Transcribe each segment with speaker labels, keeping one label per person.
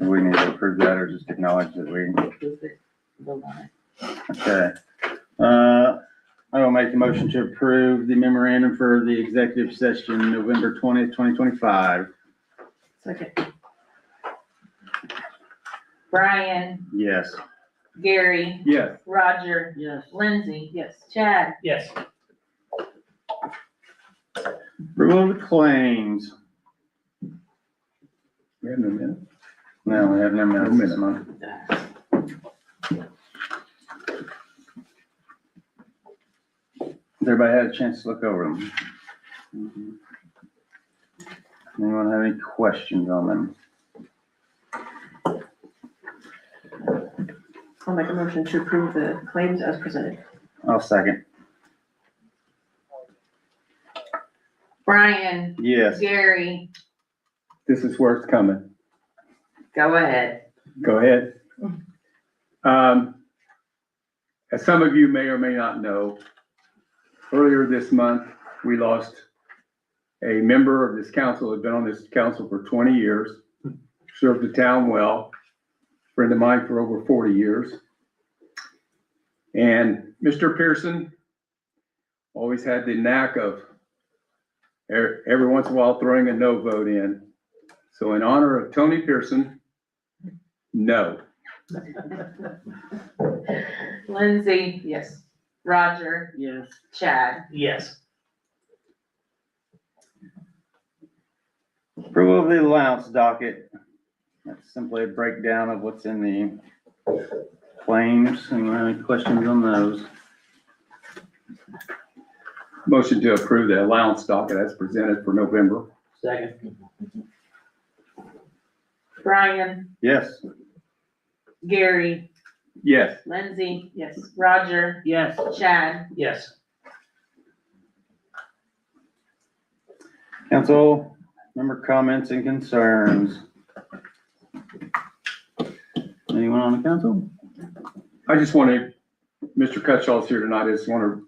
Speaker 1: Do we need to approve that or just acknowledge that we,
Speaker 2: Move it, vote on it.
Speaker 1: okay. Uh, I will make the motion to approve the memorandum for the executive session November twentieth, twenty twenty-five.
Speaker 2: Second. Brian,
Speaker 1: Yes.
Speaker 2: Gary,
Speaker 1: Yes.
Speaker 2: Roger,
Speaker 3: Yes.
Speaker 2: Lindsay,
Speaker 3: Yes.
Speaker 2: Chad,
Speaker 4: Yes.
Speaker 1: Approval of the claims.
Speaker 5: We have no minute.
Speaker 1: No, we have no minutes this
Speaker 5: No minute.
Speaker 1: month. Has Everybody had a chance to look over them? Mm-hmm. Anyone have any questions on them?
Speaker 3: I'll make a motion to approve the claims as presented.
Speaker 1: I'll second.
Speaker 2: Brian,
Speaker 1: Yes.
Speaker 2: Gary,
Speaker 5: This is where it's coming.
Speaker 2: go ahead.
Speaker 5: Go ahead. Um, as some of you may or may not know, earlier this month, we lost a member of this council, had been on this council for twenty years, served the town well, friend of mine for over forty years. And Mr. Pearson always had the knack of e- every once in a while throwing a no vote in. So in honor of Tony Pearson, no.
Speaker 2: Lindsay,
Speaker 3: Yes.
Speaker 2: Roger,
Speaker 3: Yes.
Speaker 2: Chad.
Speaker 4: Yes.
Speaker 1: Approval of the allowance docket. That's simply a breakdown of what's in the claims. Anyone have any questions on those?
Speaker 5: Motion to approve the allowance docket as presented for November.
Speaker 4: Second.
Speaker 2: Brian,
Speaker 1: Yes.
Speaker 2: Gary,
Speaker 5: Yes,
Speaker 2: Lindsay,
Speaker 3: Yes.
Speaker 2: Roger,
Speaker 4: Yes.
Speaker 2: Chad.
Speaker 4: Yes.
Speaker 1: Council member comments and concerns. Anyone on the council?
Speaker 5: I just want to, Mr. Cutshaw's here tonight, I just want to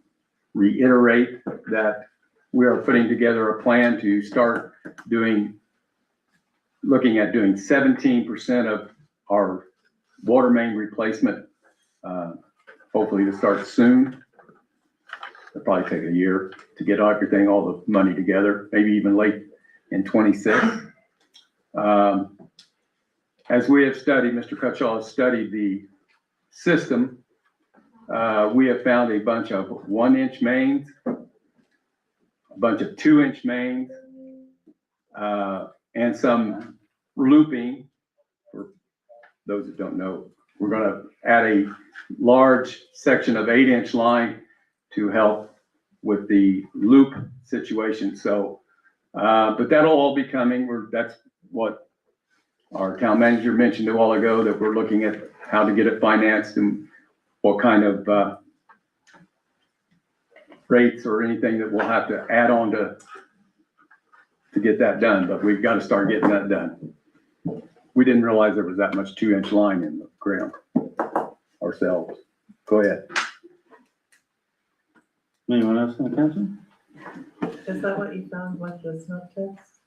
Speaker 5: reiterate that we are putting together a plan to start doing, looking at doing seventeen percent of our water main replacement. uh, Hopefully to start soon. It'll probably take a year to get everything, all the money together, maybe even late in twenty-six. Um, As we have studied, Mr. Cutshaw has studied the system, uh, we have found a bunch of one-inch mains, a bunch of two-inch mains, uh, and some looping. For those that don't know, we're gonna add a large section of eight-inch line to help with the loop situation, so, uh, but that'll all be coming, we're, that's what our town manager mentioned a while ago, that we're looking at how to get it financed and what kind of, uh, rates or anything that we'll have to add on to, to get that done, but we've got to start getting that done. We didn't realize there was that much two-inch line in the ground ourselves. Go ahead.
Speaker 1: Anyone else on the council?
Speaker 6: Is that what you found with the smoke test?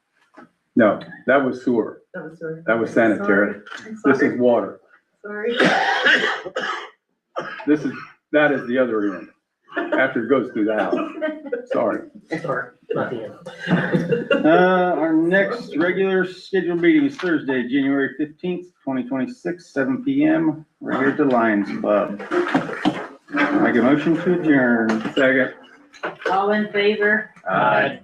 Speaker 5: No, that was sewer.
Speaker 6: That was sort of.
Speaker 5: That was sanitary.
Speaker 6: Sorry, I'm
Speaker 5: This is
Speaker 6: sorry,
Speaker 5: water.
Speaker 6: sorry.
Speaker 5: This is, that is the other end, after it goes through the house. Sorry.
Speaker 4: Or not the end.
Speaker 1: Uh, our next regular scheduled meeting is Thursday, January fifteenth, twenty twenty-six, seven P M. We're here at the Lions Club. Make a motion to adjourn.
Speaker 5: Second.
Speaker 2: All in favor?
Speaker 4: Aye.